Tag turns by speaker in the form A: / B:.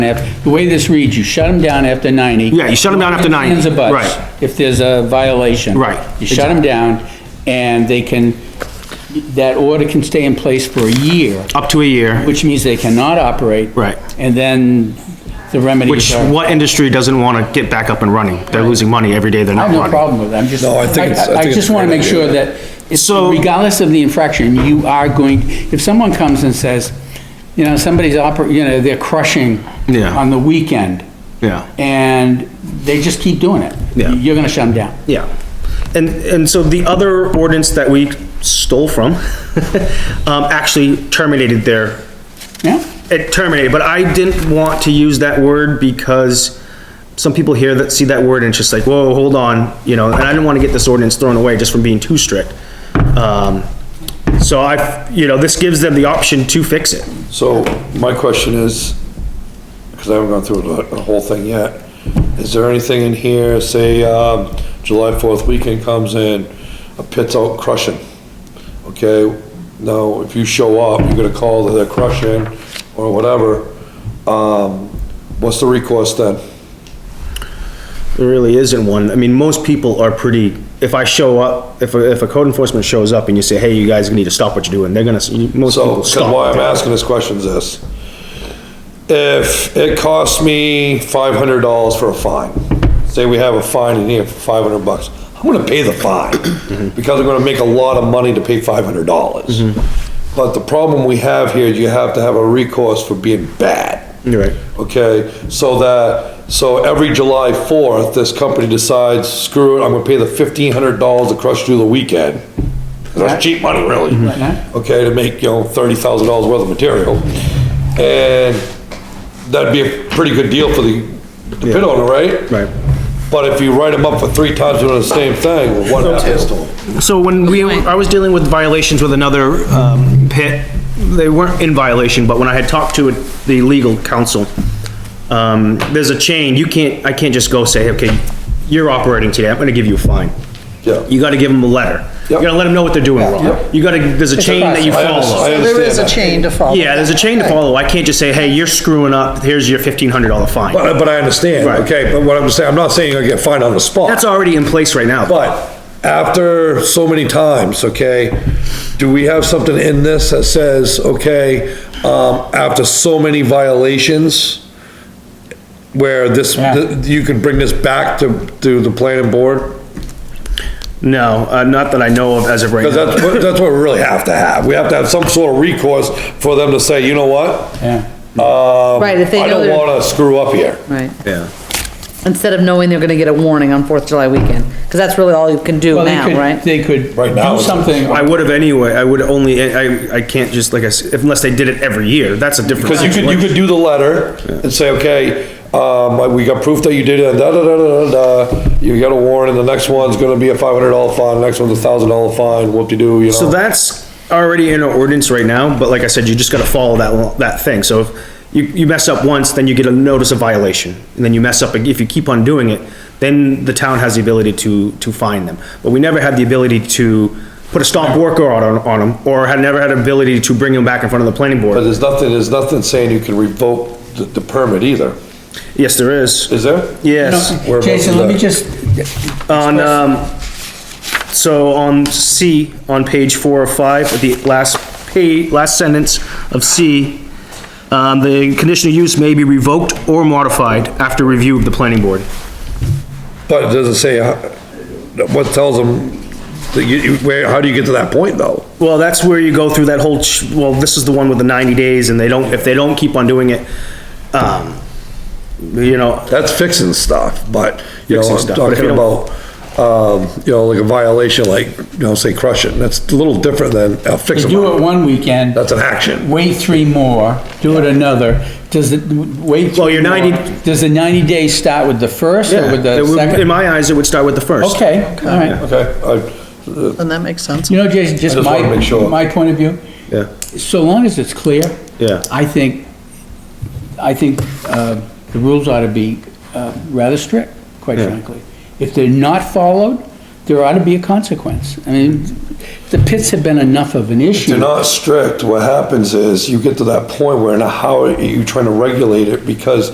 A: after- The way this reads, you shut them down after 90.
B: Yeah, you shut 'em down after 90,
A: Hands or butts,
B: right.
A: If there's a violation.
B: Right.
A: You shut them down, and they can, that order can stay in place for a year,
B: Up to a year,
A: which means they cannot operate.
B: Right.
A: And then the remedies
B: which
A: are,
B: what industry doesn't want to get back up and running? They're losing money every day they're
A: I
B: not
A: have no
B: running.
A: problem with it, I'm just.
C: No, I think it's- I think
A: I
C: it's
A: just
C: a
A: wanna
C: great
A: make sure
C: idea.
A: that, it's-
B: So-
A: regardless of the infraction, you are going, if someone comes and says, you know, somebody's oper, you know, they're crushing
B: Yeah.
A: on the weekend.
B: Yeah.
A: And they just keep doing it.
B: Yeah.
A: You're gonna shut them down.
B: Yeah. And, and so the other ordinance that we stole from, um, actually terminated their
A: Yeah?
B: it terminated, but I didn't want to use that word because some people hear that, see that word and it's just like, whoa, hold on, you know, and I didn't want to get this ordinance thrown away just from being too strict. Um, so I, you know, this gives them the option to fix it.
C: So my question is, because I haven't gone through the, the whole thing yet, is there anything in here, say, um, July fourth weekend comes in, a pit's out crushing, okay? Now, if you show up, you're gonna call that they're crushing or whatever, um, what's the recourse then?
B: There really isn't one. I mean, most people are pretty, if I show up, if, a- if a code enforcement shows up and you say, hey, you guys need to stop what you're doing, they're gonna, s- most
C: So,
B: people
C: 'cause why
B: stop.
C: I'm asking this question is this. If it costs me five hundred dollars for a fine, say we have a fine in here for five hundred bucks, I'm gonna pay the fine
B: Mm-hmm.
C: because I'm gonna make a lot of money to pay five hundred dollars.
B: Mm-hmm.
C: But the problem we have here is you have to have a recourse for being bad.
B: You're right.
C: Okay, so that, so every July fourth, this company decides, screw it, I'm gonna pay the fifteen hundred dollars to crush through the weekend. That's cheap money, really.
A: Mhm.
C: Okay, to make, you know, thirty thousand dollars worth of material. And that'd be a pretty good deal for the the pit
B: Yeah.
C: owner, right?
B: Right.
C: But if you write them up for three times doing the same thing, well, what happens to them?
B: So when we, I was dealing with violations with another, um, pit, they weren't in violation, but when I had talked to the legal counsel, um, there's a chain, you can't, I can't just go say, okay, you're operating today, I'm gonna give you a fine.
C: Yeah.
B: You gotta give them a letter. You
C: Yep.
B: gotta let them know what they're doing wrong.
C: Yep.
B: You gotta, there's a chain that you
C: I under- I
B: follow.
C: understand
D: There is a
C: that.
D: chain to follow.
B: Yeah, there's a chain to
D: Right.
B: follow. I can't just say, hey, you're screwing up, here's your fifteen hundred dollar fine.
C: But, but I understand,
B: Right.
C: okay, but what I'm saying, I'm not saying you're gonna get fined on the spot.
B: That's already in place right now.
C: But after so many times, okay, do we have something in this that says, okay, um, after so many violations, where this,
A: Yeah.
C: th- you can bring this back to, to the planning board?
B: No, uh, not that I know of as of right
C: Because
B: now.
C: that's, what- that's what we really have to have. We have to have some sort of recourse for them to say, you know what?
A: Yeah.
C: Um,
E: Right, if they
C: I
E: know
C: don't
E: they're-
C: wanna screw up here.
E: Right,
B: Yeah.
E: instead of knowing they're gonna get a warning on Fourth of July weekend, because that's really all you can do
A: Well, they
E: now,
A: could-
E: right?
A: They could
C: Right now
A: do
C: it's-
A: something.
B: I would have anyway, I would only, I, I can't just, like I said, unless they did it every year, that's a different.
C: Because you could, you could do the letter and say, okay, um, we got proof that you did it, da, da, da, da, da, da. You got a warrant, and the next one's gonna be a five hundred dollar fine, next one's a thousand dollar fine, whoop-de-doo, you
B: So
C: know?
B: that's already in our ordinance right now, but like I said, you just gotta follow that, lo- that thing, so if you, you mess up once, then you get a notice of violation, and then you mess up, ag- if you keep on doing it, then the town has the ability to, to fine them, but we never had the ability to put a stop work order on, on them, or had never had ability to bring them back in front of the planning
C: But
B: board.
C: there's nothing, there's nothing saying you can revoke the, the permit either,
B: Yes, there is,
C: is there?
B: yes.
A: No,
C: Whereabouts
A: Jason,
C: is
A: let me
C: that?
A: just,
B: On, um, so on C, on page four or five, at the last pa, last sentence of C, um, the conditional use may be revoked or modified after review of the planning board.
C: But it doesn't say, uh, what tells them, that you, you- where, how do you get to that point, though?
B: Well, that's where you go through that whole, ch- well, this is the one with the ninety days, and they don't, if they don't keep on doing it, um, you know,
C: That's fixing stuff, but, you know,
B: Fixing
C: I'm
B: stuff, but if you
C: talking about, um, you know, like a violation, like, you know, say crushing, that's a little different than a
A: you
C: fixing.
A: do it one weekend,
C: That's an action.
A: wait three more, do it another. Does it, wait
B: Well,
A: three
B: your 90
A: more. Does the 90 days start with the first or
B: yeah,
A: with
B: it
A: the
B: would- in
A: second?
B: my eyes, it would start with the first.
A: Okay, all right.
C: Okay, I,
D: Then that makes sense.
A: You know, Jason, just
C: just
A: my,
C: wanna make sure.
A: my point of view,
B: Yeah,
A: so long as it's clear.
B: Yeah.
A: I think, I think, uh, the rules ought to be, uh, rather strict, quite
B: Yeah.
A: frankly. If they're not followed, there ought to be a consequence. I mean, the pits have been enough of an issue.
C: If you're not strict, what happens is you get to that point where now how are you trying to regulate it? Because